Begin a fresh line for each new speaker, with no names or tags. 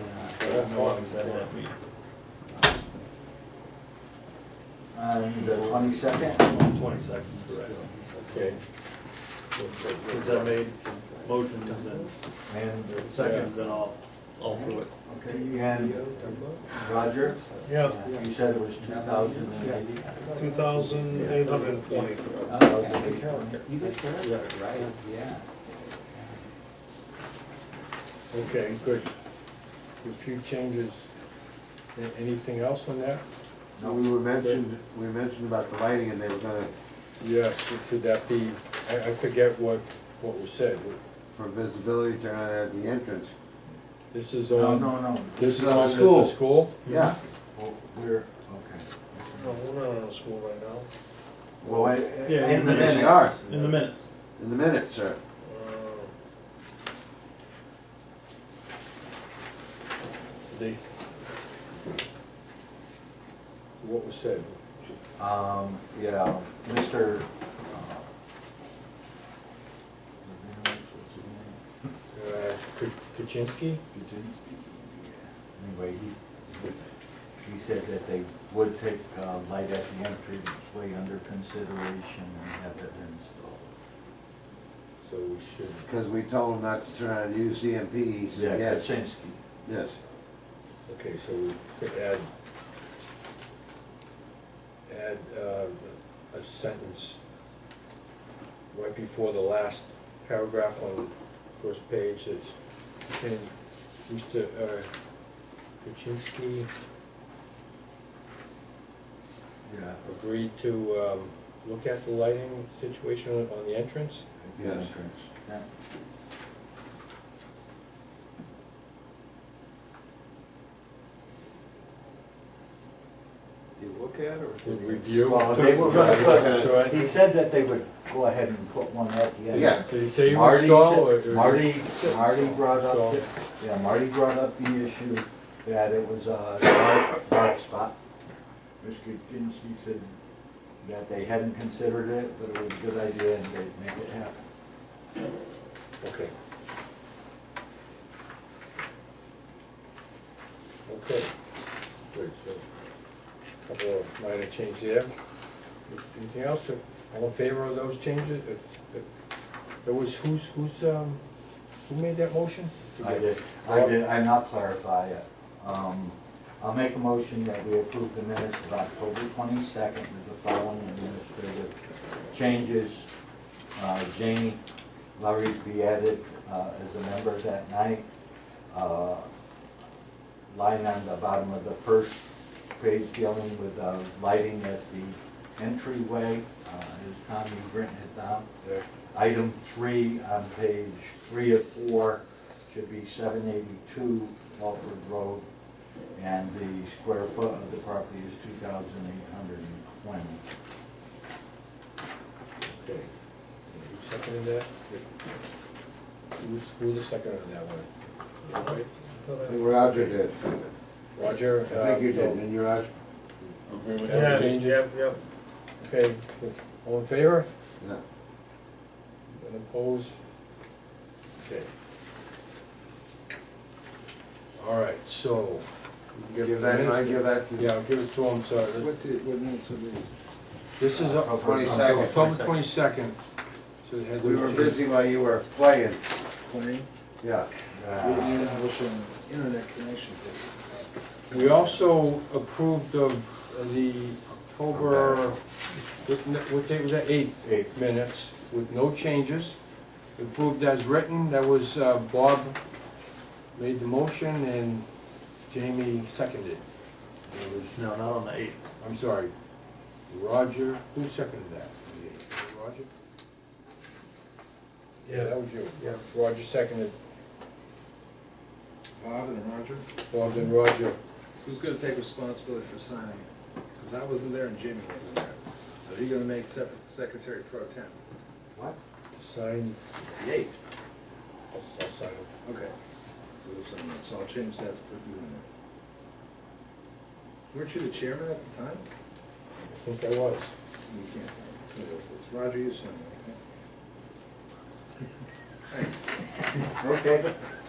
don't know what that might be.
And the twenty-second?
Twenty-second, correct.
Okay.
Since I made motions and
And
seconds, and I'll, I'll do it.
Okay, and Roger,
Yeah,
you said it was two thousand and eighty?
two thousand eight hundred and twenty.
He's a sheriff, right? Yeah.
Okay, good. A few changes. A- Anything else on that?
No, we were mentioned, we mentioned about the lighting and they were gonna,
Yes, it should that be, I, I forget what, what was said.
for visibility, turn on at the entrance.
This is
No,
on,
no, no,
this is
This is
on
on
the
school.
the school?
Yeah,
Well, we're,
No,
okay.
we're not on a school right now.
Well, I- in
Yeah,
the
in the
they
minute,
are,
In the minutes.
in the minute, sir.
Uh,
They s-
What was said?
um, yeah, Mr.
Uh, K- Kaczynski?
Anyway, he, he said that they would take, uh, light at the entryway under consideration and have it installed.
So we should,
Because we told him not to turn on UCMP, he said,
Yeah,
yes,
Kaczynski.
yes.
okay, so we could add, add, uh, a sentence right before the last paragraph on first page that's, and Mr. uh, Kaczynski
Yeah.
agreed to, um, look at the lighting situation on- on the entrance?
Yes.
Yeah.
You look at or?
Review.
Well, they were gonna put-
That's right.
He said that they would go ahead and put one at the end.
Yeah.
Did he say he would
Marty
stall or?
said- Marty, Marty brought
Stall.
up, yeah, Marty brought up the issue that it was a dark, dark spot. Mr. Kinsey said that they hadn't considered it, but it was a good idea and they'd make it happen.
Okay. Okay, good, so, couple of minor changes there. Anything else, all in favor of those changes? Uh, uh, It was, who's, who's, um, who made that motion?
I did, I did, I'm not clarify it. Um, I'll make a motion that we approve the minutes of October twenty-second with the following administrative changes. Uh, Janie Lowry to be added, uh, as a member that night. Uh, Line on the bottom of the first page dealing with, uh, lighting at the entryway, uh, as Tommy Britton had done.
Yeah.
Item three on page three of four should be seven eighty-two Walford Road, and the square foot of the property is two thousand eight hundred and twenty.
Okay. Who seconded that? Who's, who's the second on that one? All right.
I think Roger did.
Roger?
I think you
uh, so-
did, and you, Roger?
agree with
Yeah.
that.
Change it.
Yep, yep.
Okay, all in favor?
Yeah.
And opposed? Okay. All right, so. we can
Give
the
that, I
minutes-
give that to.
Yeah, I'll give it to him, so this-
did, what minutes were these?
this is
Oh,
Oc-
22nd.
October twenty-second. So it had
We were
those changes.
busy while you were playing,
Playing,
yeah.
Uh,
establishing internet connection.
We also approved of the October, what n- what date was that, eighth?
Eighth.
Minutes with no changes. Approved as written, that was uh, Bob made the motion and Jamie seconded. It was,
No, not on the eighth.
I'm sorry, Roger, who seconded that? The eighth? Roger? Yeah, that was you.
Yeah.
Roger seconded,
Bob and Roger,
Bob and Roger.
who's gonna take responsibility for signing it? Cause I wasn't there and Jimmy wasn't there. So you're gonna make sep- secretary pro tem.
What?
Signed,
The eighth.
I'll I'll sign it.
Okay. So there's something else. So I'll change that to put you in there. Weren't you the chairman at the time?
I think I was.
You can't sign it. Somebody else is. Roger, you sign it, okay? Thanks.
Okay,